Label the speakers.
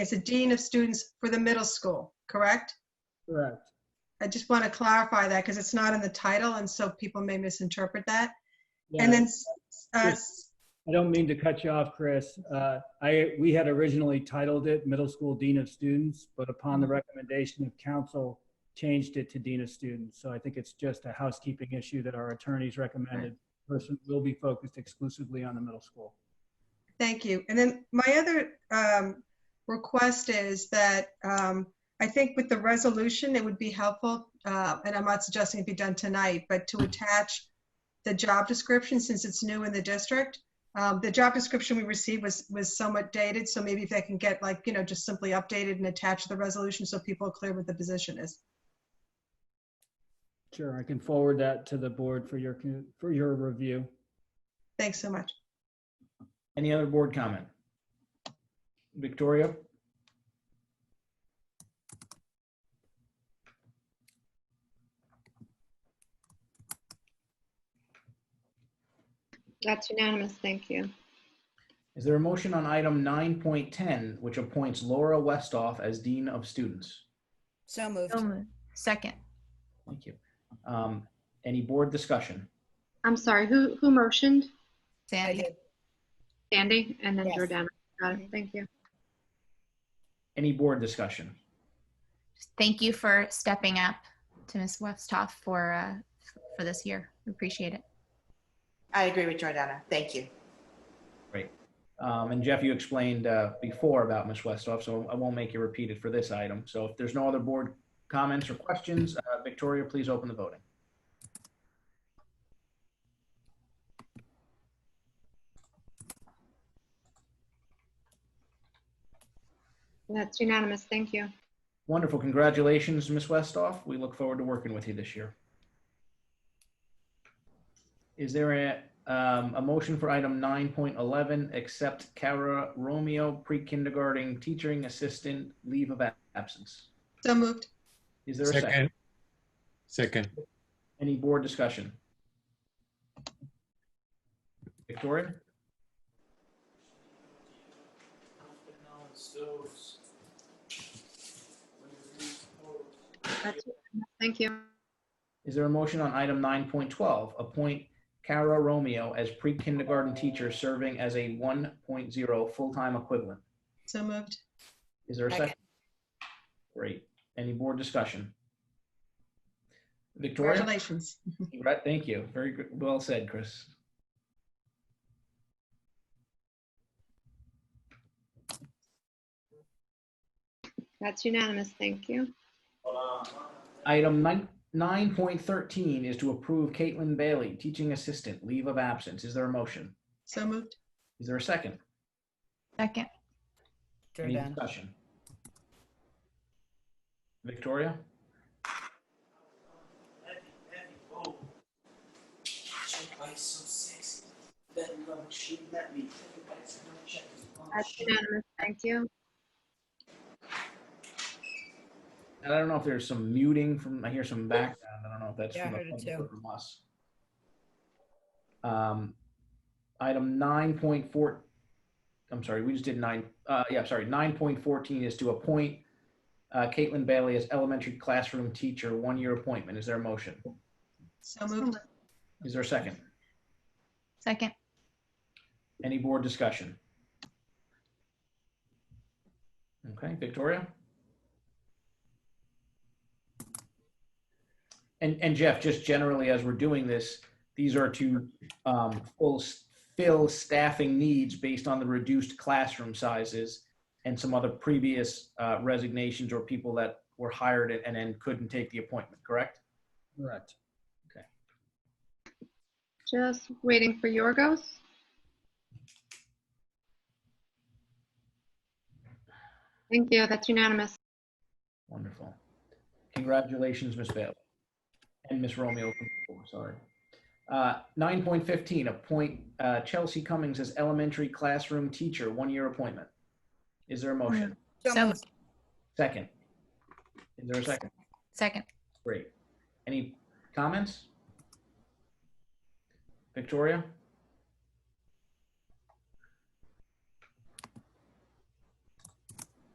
Speaker 1: It's a dean of students for the middle school, correct?
Speaker 2: Correct.
Speaker 1: I just want to clarify that because it's not in the title and so people may misinterpret that. And
Speaker 2: Yeah.
Speaker 1: then, s- uh, s-
Speaker 2: I don't mean to cut you off, Chris. Uh, I, we had originally titled it Middle School Dean of Students, but upon
Speaker 1: Mm-hmm.
Speaker 2: the recommendation of council, changed it to Dean of Students. So I think it's just a housekeeping issue that our attorneys recommended. Person will be focused exclusively on the middle school.
Speaker 1: thank you. And then my other um, request is that um, I think with the resolution, it would be helpful, uh, and I'm not suggesting it be done tonight, but to attach the job description since it's new in the district. Um, The job description we received was, was somewhat dated, so maybe if they can get like, you know, just simply updated and attached to the resolution so people are clear what the position is.
Speaker 2: Sure, I can forward that to the board for your, con- for your review.
Speaker 1: Thanks so much.
Speaker 3: Any other board comment? Victoria?
Speaker 4: That's unanimous, thank you.
Speaker 3: Is there a motion on item 9.10, which appoints Laura Westoff as Dean of Students?
Speaker 5: So moved.
Speaker 6: So moved. Second.
Speaker 3: Thank you. Um, Any board discussion?
Speaker 4: I'm sorry, who, who motioned?
Speaker 5: I
Speaker 6: Sandy.
Speaker 5: did.
Speaker 4: Sandy and then
Speaker 5: Yes.
Speaker 4: Jordana. Got it, thank you.
Speaker 3: Any board discussion?
Speaker 6: Thank you for stepping up to Ms. Westhoff for, uh, for this year. Appreciate it.
Speaker 7: I agree with Jordana. Thank you.
Speaker 3: Um, And Jeff, you explained uh, before about Ms. Westoff, so I won't make you repeat it for this item. So if there's no other board comments or questions, uh, Victoria, please open the voting.
Speaker 4: That's unanimous, thank you.
Speaker 3: Wonderful. Congratulations, Ms. Westoff. We look forward to working with you this year. Is there a, um, a motion for item 9.11, accept Cara Romeo, pre-kindergarten teaching assistant leave of absence?
Speaker 1: So moved.
Speaker 3: Is there a second?
Speaker 8: Second.
Speaker 3: Any board discussion? Victoria?
Speaker 4: That's unanimous. Thank you.
Speaker 3: Is there a motion on item 9.12, appoint Cara Romeo as pre-kindergarten teacher serving as a 1.0 full-time equivalent?
Speaker 1: So moved.
Speaker 3: Is there a
Speaker 5: Second.
Speaker 3: second? Great. Any more discussion? Victoria?
Speaker 1: Congratulations.
Speaker 3: Right, Thank you. Very good. well said, Chris.
Speaker 4: That's unanimous, thank you.
Speaker 3: Item nine- 9.13 is to approve Caitlin Bailey, teaching assistant, leave of absence. Is there a motion?
Speaker 1: So moved.
Speaker 3: Is there a second?
Speaker 6: Second.
Speaker 3: Any
Speaker 5: Jordana.
Speaker 3: discussion? Victoria?
Speaker 4: That's unanimous, thank you.
Speaker 3: And I don't know if there's some muting from, I hear some background. I don't know if that's
Speaker 5: Yeah, I
Speaker 3: from, the
Speaker 5: heard it
Speaker 3: public
Speaker 5: too.
Speaker 3: or from us. Um, item 9.4, I'm sorry, we just did nine, uh, yeah, sorry, 9.14 is to appoint uh, Caitlin Bailey as elementary classroom teacher, one-year appointment. Is there a motion?
Speaker 1: So moved.
Speaker 3: Is there a second?
Speaker 6: Second.
Speaker 3: Any board discussion? Okay, Victoria? And, and Jeff, just generally, as we're doing this, these are to um, full, fill staffing needs based on the reduced classroom sizes and some other previous uh, resignations or people that were hired and- and then couldn't take the appointment, correct?
Speaker 2: Correct.
Speaker 4: Just waiting for Yorgos. Thank you, that's unanimous.
Speaker 3: Wonderful. Congratulations, Ms. Bailey. And Ms. Romeo, oh, sorry. Uh, 9.15, appoint uh, Chelsea Cummings as elementary classroom teacher, one-year appointment. Is there a motion?
Speaker 6: So moved.
Speaker 3: Second. Is there a second?
Speaker 6: Second.
Speaker 3: Great. Any comments? Victoria?